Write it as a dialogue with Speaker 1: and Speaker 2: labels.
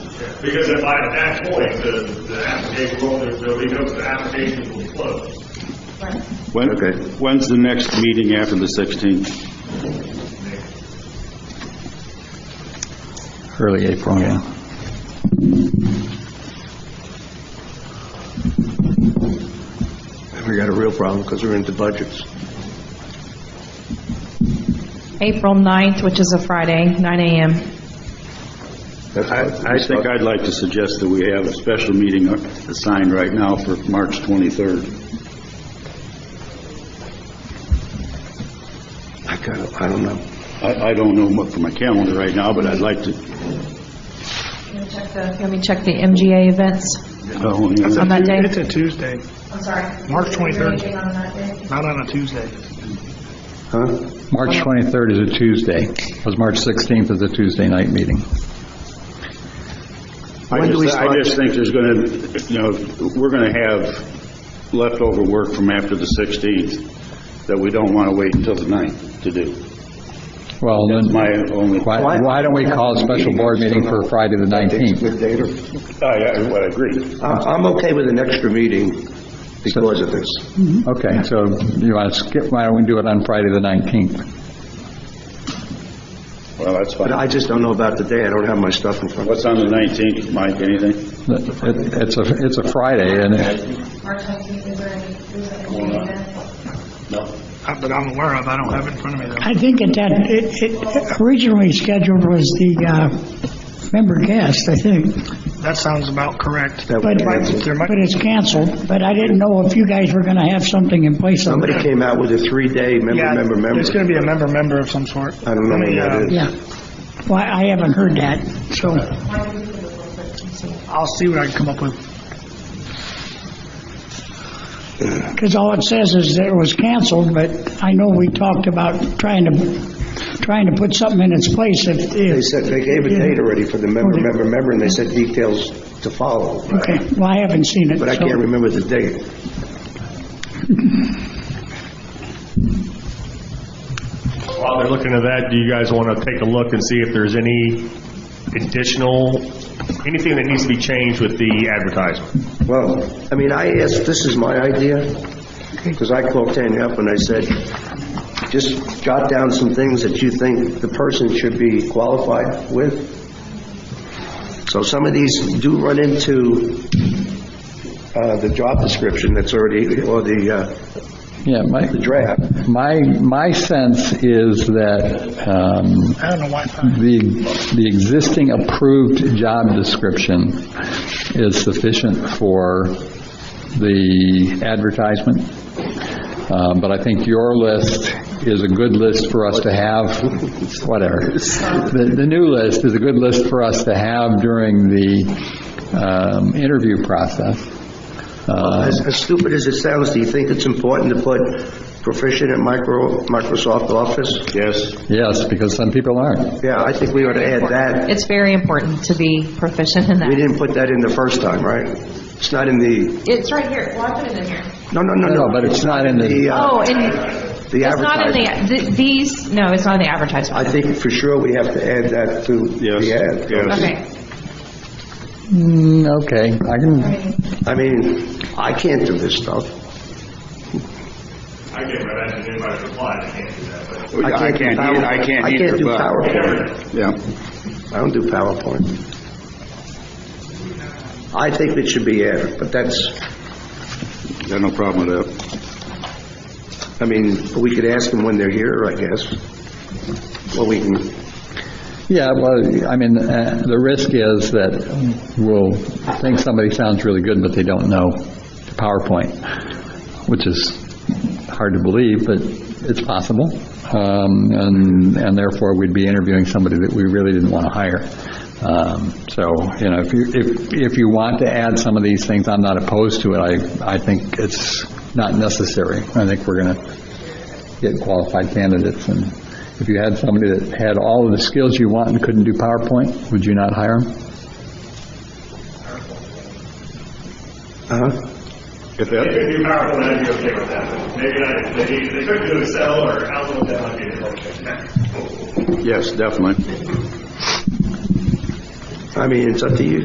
Speaker 1: Because if I, at that point, the, the application, well, there- there'll be no, the application will close.
Speaker 2: When,
Speaker 3: Okay.
Speaker 2: when's the next meeting after the 16th?
Speaker 4: Early April, yeah.
Speaker 3: We got a real problem because we're into budgets.
Speaker 5: April 9th, which is a Friday, 9 AM.
Speaker 3: That's
Speaker 2: I, I think I'd like to suggest that we have a special meeting uh, assigned right now for March 23rd.
Speaker 3: I kind of, I don't know.
Speaker 2: I, I don't know what for my calendar right now, but I'd like to,
Speaker 5: Let me check the MGA events
Speaker 2: oh, yeah.
Speaker 5: on that day.
Speaker 6: It's a Tuesday,
Speaker 5: I'm sorry.
Speaker 6: March 23rd.
Speaker 5: Is there anything on that day?
Speaker 6: not on a Tuesday.
Speaker 3: Huh?
Speaker 4: March 23rd is a Tuesday, because March 16th is a Tuesday night meeting.
Speaker 2: I
Speaker 3: When do we
Speaker 2: just, I
Speaker 3: start?
Speaker 2: just think there's going to, you know, we're going to have leftover work from after the 16th that we don't want to wait until the 9th to do.
Speaker 4: Well, then,
Speaker 2: My only, I,
Speaker 4: why why don't we call a special board meeting for Friday the 19th?
Speaker 3: Good data.
Speaker 2: I well, I agree.
Speaker 3: I- I'm okay with an extra meeting because of this.
Speaker 4: Okay, so you want to skip, why don't we do it on Friday the 19th?
Speaker 2: Well, that's
Speaker 3: But
Speaker 2: fine.
Speaker 3: I just don't know about the day. I don't have my stuff in front of me.
Speaker 2: What's on the 19th, Mike, anything?
Speaker 4: It- It's a, it's a Friday, and it-
Speaker 5: March 19th, is there any, is there any meeting then?
Speaker 2: No.
Speaker 6: Uh, But I'm aware of, I don't have it in front of me
Speaker 7: I think at that, it, it originally scheduled was the, uh, member guest, I think.
Speaker 6: though. That sounds about correct.
Speaker 3: That
Speaker 7: But,
Speaker 3: would cancel.
Speaker 6: There might-
Speaker 7: but it's canceled, but I didn't know if you guys were gonna have something in place of
Speaker 3: Somebody
Speaker 7: it.
Speaker 3: came out with a three-day member,
Speaker 6: Yeah,
Speaker 3: member,
Speaker 6: It's
Speaker 3: member.
Speaker 6: going to be a member-member of some sort.
Speaker 3: I don't know
Speaker 6: Let me,
Speaker 3: when that
Speaker 6: uh,
Speaker 3: is.
Speaker 7: Yeah. Well, I haven't heard that, so,
Speaker 6: I'll see what I can come up with.
Speaker 7: because all it says is that it was canceled, but I know we talked about trying to, trying to put something in its place if, if.
Speaker 3: They said, they gave a date already for the member, member, member, and they said details to follow.
Speaker 7: Okay, well, I haven't seen it,
Speaker 3: But I
Speaker 7: so-
Speaker 3: can't remember the date.
Speaker 1: While they're looking at that, do you guys want to take a look and see if there's any additional, anything that needs to be changed with the advertisement?
Speaker 3: Well, I mean, I asked, this is my idea, because I called Tanya up and I said, just jot down some things that you think the person should be qualified with. So some of these do run into uh, the job description that's already, or the uh,
Speaker 4: yeah, my,
Speaker 3: the draft.
Speaker 4: my, my sense is that um,
Speaker 6: I don't know why. I-
Speaker 4: the, the existing approved job description is sufficient for the advertisement, Uh, but I think your list is a good list for us to have, whatever. The, the new list is a good list for us to have during the um, interview process. Uh,
Speaker 3: As as stupid as it sounds, do you think it's important to put proficient at micro Microsoft Office?
Speaker 2: Yes.
Speaker 4: Yes, because some people aren't.
Speaker 3: Yeah, I think we ought to add that.
Speaker 5: It's very important to be proficient in
Speaker 3: We
Speaker 5: that.
Speaker 3: didn't put that in the first time, right? It's not in the,
Speaker 5: It's right here. Well, I put it in here.
Speaker 3: no, no, no,
Speaker 4: No,
Speaker 3: no.
Speaker 4: but it's not in the-
Speaker 3: uh,
Speaker 5: Oh, and
Speaker 3: The
Speaker 5: it's not in
Speaker 3: advertisement.
Speaker 5: the, th- these, no, it's not in the
Speaker 3: I
Speaker 5: advertisement.
Speaker 3: think for sure we have to add that to
Speaker 2: Yes,
Speaker 3: the ad.
Speaker 2: yes.
Speaker 5: Okay.
Speaker 4: Mm, Okay, I can,
Speaker 3: I mean, I can't do this stuff.
Speaker 1: I can't imagine anybody replied, I can't do that, but.
Speaker 2: I
Speaker 3: do
Speaker 2: can't,
Speaker 3: Power-
Speaker 2: either- I can't
Speaker 3: I can't
Speaker 2: either,
Speaker 3: do
Speaker 2: but,
Speaker 3: PowerPoint.
Speaker 2: yeah.
Speaker 3: I don't do PowerPoint. I think it should be added, but that's,
Speaker 2: Got no problem with that.
Speaker 3: I mean, we could ask them when they're here, I guess. Well, we can,
Speaker 4: yeah, well, I mean, uh, the risk is that we'll think somebody sounds really good, but they don't know PowerPoint, which is hard to believe, but it's possible. Um, And and therefore, we'd be interviewing somebody that we really didn't want to hire. Um, So, you know, if you, if if you want to add some of these things, I'm not opposed to it. I, I think it's not necessary. I think we're going to get qualified candidates. And if you had somebody that had all of the skills you want and couldn't do PowerPoint, would you not hire them?
Speaker 3: uh-huh.
Speaker 2: If that,
Speaker 1: If you're powerful, I'd be okay with that. Maybe not, they, they could do Excel or Outlook, that might be okay.
Speaker 2: yes, definitely.
Speaker 3: I mean, it's up to you